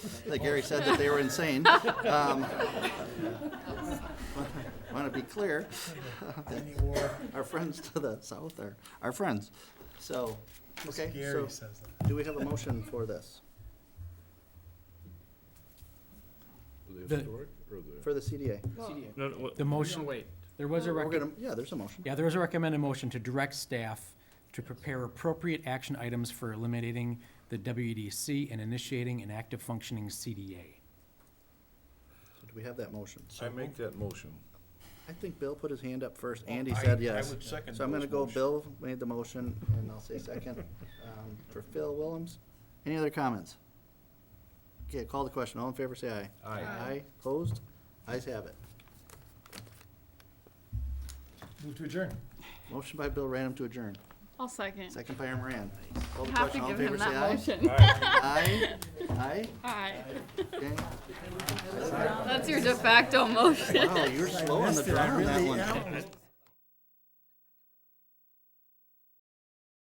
that Gary said that they were insane. Um, Want to be clear, our friends to the south are our friends. So, okay, so Gary says that. do we have a motion for this, The- for the CDA? No, no, what- The motion, there was a We're rec, gonna- Yeah, there's a motion. yeah, there was a recommended motion to direct staff to prepare appropriate action items for eliminating the WEDC and initiating an active functioning CDA. So Do we have that motion? I make that motion. I think Bill put his hand up first, and he I- said I yes. would second So I'm gonna Bill's go, motion. Bill made the motion, and I'll say second, um, for Phil Willems. Any other comments? Okay, call the question, all in favor, say aye. Aye. Aye. Aye, opposed, ayes have it. Move to adjourn. Motion by Bill Random to adjourn, I'll second. second by Moran. Call the Have to question, all in give favor, him say that aye. motion. Aye, aye, Aye. okay. That's your de facto motion. Wow, you were slow on the draw on that one.